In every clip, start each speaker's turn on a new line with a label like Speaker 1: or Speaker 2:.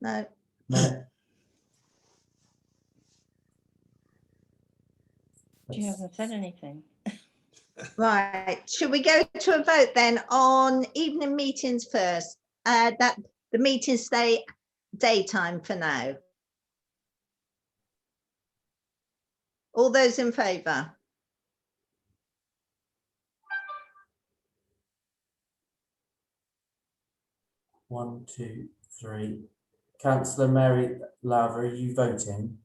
Speaker 1: No,
Speaker 2: No.
Speaker 3: She hasn't said anything.
Speaker 1: right. Should we go to a vote then on evening meetings first? Uh, that, the meetings stay daytime for now. All those in favour?
Speaker 2: One, two, three. Councillor Mary Lowry, are you voting?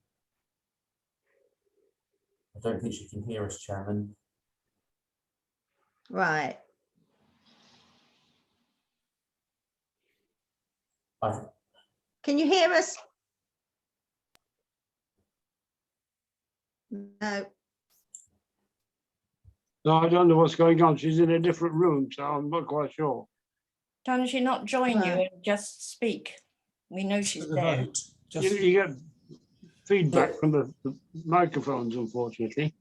Speaker 2: I don't think she can hear us, Chairman.
Speaker 1: Right,
Speaker 2: I,
Speaker 1: can you hear us? No,
Speaker 4: No, I don't know what's going on. She's in a different room, so I'm not quite sure.
Speaker 3: Can she not join you
Speaker 1: No.
Speaker 3: and just speak? We know she's
Speaker 5: The
Speaker 3: there.
Speaker 5: vote,
Speaker 4: You,
Speaker 5: just,
Speaker 4: you get feedback from the, the microphones, unfortunately.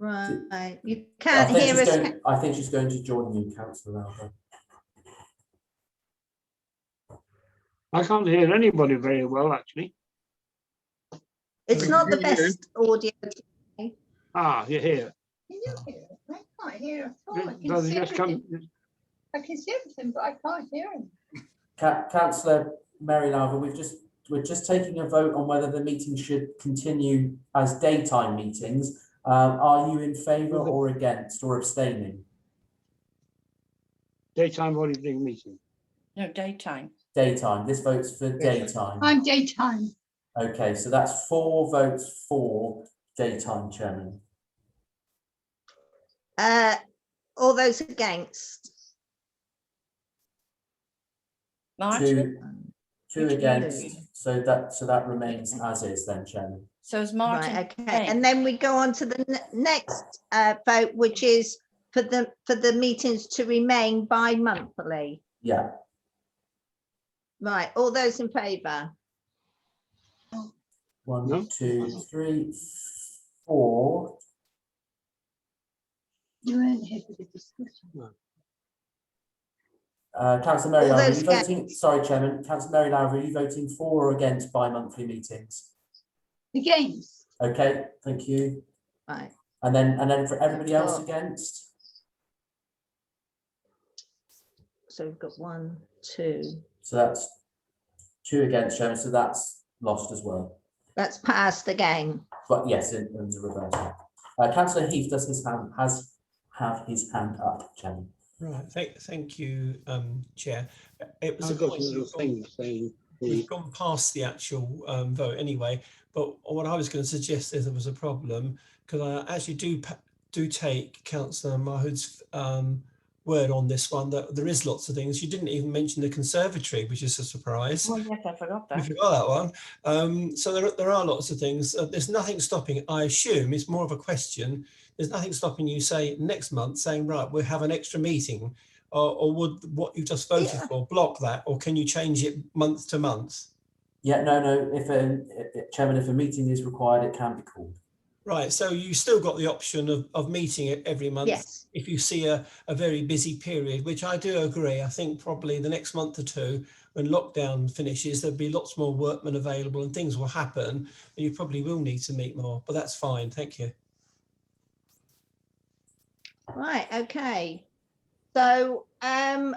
Speaker 1: right, you
Speaker 2: I
Speaker 1: can't
Speaker 2: think
Speaker 1: hear
Speaker 2: she's
Speaker 1: us.
Speaker 2: going, I think she's going to join you, councillor Lowry.
Speaker 4: I can't hear anybody very well, actually.
Speaker 1: It's not the
Speaker 4: Can you hear?
Speaker 1: best audio.
Speaker 4: Ah, you're here.
Speaker 6: Can you hear us? I can't hear at all. I
Speaker 4: No,
Speaker 6: can
Speaker 4: they
Speaker 6: see
Speaker 4: just
Speaker 6: everything.
Speaker 4: come,
Speaker 6: I can see everything, but I can't hear him.
Speaker 2: Ca- councillor Mary Lowry, we've just, we're just taking a vote on whether the meeting should continue as daytime meetings. Um, are you in favour or against or abstaining?
Speaker 4: daytime or evening meeting.
Speaker 3: No, daytime.
Speaker 2: Daytime, this vote's for daytime.
Speaker 6: I'm daytime.
Speaker 2: Okay, so that's four votes for daytime chairman.
Speaker 1: Uh, all those against?
Speaker 3: Martin,
Speaker 2: Two, two
Speaker 3: Which
Speaker 2: against,
Speaker 3: blue?
Speaker 2: so that, so that remains as is then, chairman.
Speaker 3: so is
Speaker 1: Right,
Speaker 3: Martin.
Speaker 1: okay,
Speaker 3: staying?
Speaker 1: and then we go on to the ne- next uh, vote, which is for the, for the meetings to remain bi-monthly.
Speaker 2: Yeah,
Speaker 1: Right, all those in favour?
Speaker 4: No?
Speaker 2: one, two, three, four.
Speaker 6: You weren't here for the discussion.
Speaker 2: Uh, councillor Mary
Speaker 1: All
Speaker 2: Lowry, are
Speaker 1: those
Speaker 2: you voting, sorry, chairman, councillor Mary Lowry, are you voting for or against bi-monthly meetings?
Speaker 6: The games.
Speaker 2: Okay, thank you.
Speaker 1: Right,
Speaker 2: And then, and then for everybody else
Speaker 1: Oh.
Speaker 2: against?
Speaker 1: so we've got one, two,
Speaker 2: So that's two against, chairman, so that's lost as well.
Speaker 1: that's passed again.
Speaker 2: But yes, in, in the reverse. Uh, councillor Heath does his hand, has, have his hand up, Chairman.
Speaker 5: right, thank, thank you, um, Chair. It was a
Speaker 4: I've got
Speaker 5: point,
Speaker 4: a little
Speaker 5: we've
Speaker 4: thing
Speaker 5: gone-
Speaker 4: saying,
Speaker 5: we've gone past the actual, um, vote anyway, but what I was going to suggest is there was a problem, because I actually do, pa- do take councillor Mahood's, um, word on this one, that there is lots of things. You didn't even mention the conservatory, which is a surprise.
Speaker 3: Well, Oh, yes, I forgot
Speaker 5: We
Speaker 3: that.
Speaker 5: forgot that one. Um, so there, there are lots of things. Uh, there's nothing stopping. I assume it's more of a question. There's nothing stopping you say next month saying right we'll have an extra meeting, or, or would what you just voted
Speaker 1: Yeah.
Speaker 5: for block that, or can you change it month to month?
Speaker 2: Yeah, no, no, if, um, i- i- Chairman, if a meeting is required, it can be called.
Speaker 5: Right. So you still got the option of, of meeting it every month
Speaker 1: Yes,
Speaker 5: if you see a, a very busy period, which I do agree. I think probably the next month or two, when lockdown finishes, there'll be lots more workmen available and things will happen. And you probably will need to meet more, but that's fine. Thank you.
Speaker 1: right, okay. So um,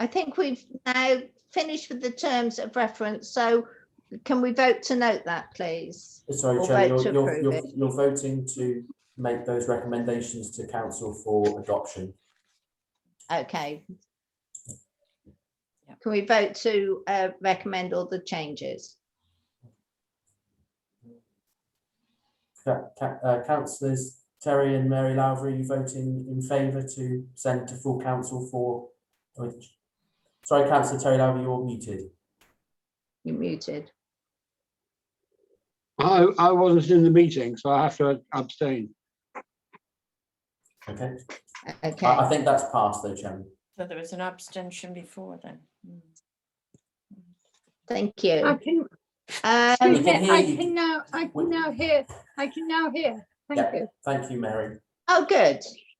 Speaker 1: I think we've now finished with the terms of reference, so can we vote to note that, please?
Speaker 2: Uh, Sorry,
Speaker 1: Or
Speaker 2: Chairman,
Speaker 1: vote to
Speaker 2: you're, you're,
Speaker 1: approve
Speaker 2: you're, you're voting to make those recommendations to council for adoption.
Speaker 1: Okay. Can we vote to uh, recommend all the changes?
Speaker 2: Ca- ca- uh, councillors Terry and Mary Lowry, are you voting in favour to send to full council for? which- Sorry, councillor Terry Lowry, you're muted.
Speaker 1: You muted.
Speaker 4: I, I wasn't in the meeting, so I have to abstain.
Speaker 2: Okay, I, I
Speaker 1: Okay,
Speaker 2: think that's passed though, Chairman.
Speaker 3: So there was an abstention before then. Mm.
Speaker 1: thank
Speaker 6: I
Speaker 1: you.
Speaker 6: can,
Speaker 1: Um,
Speaker 2: we can hear
Speaker 6: I
Speaker 2: you.
Speaker 6: can now, I can now hear, I can now hear. Thank
Speaker 2: Yeah.
Speaker 6: you.
Speaker 2: Thank you, Mary.
Speaker 1: Oh, good.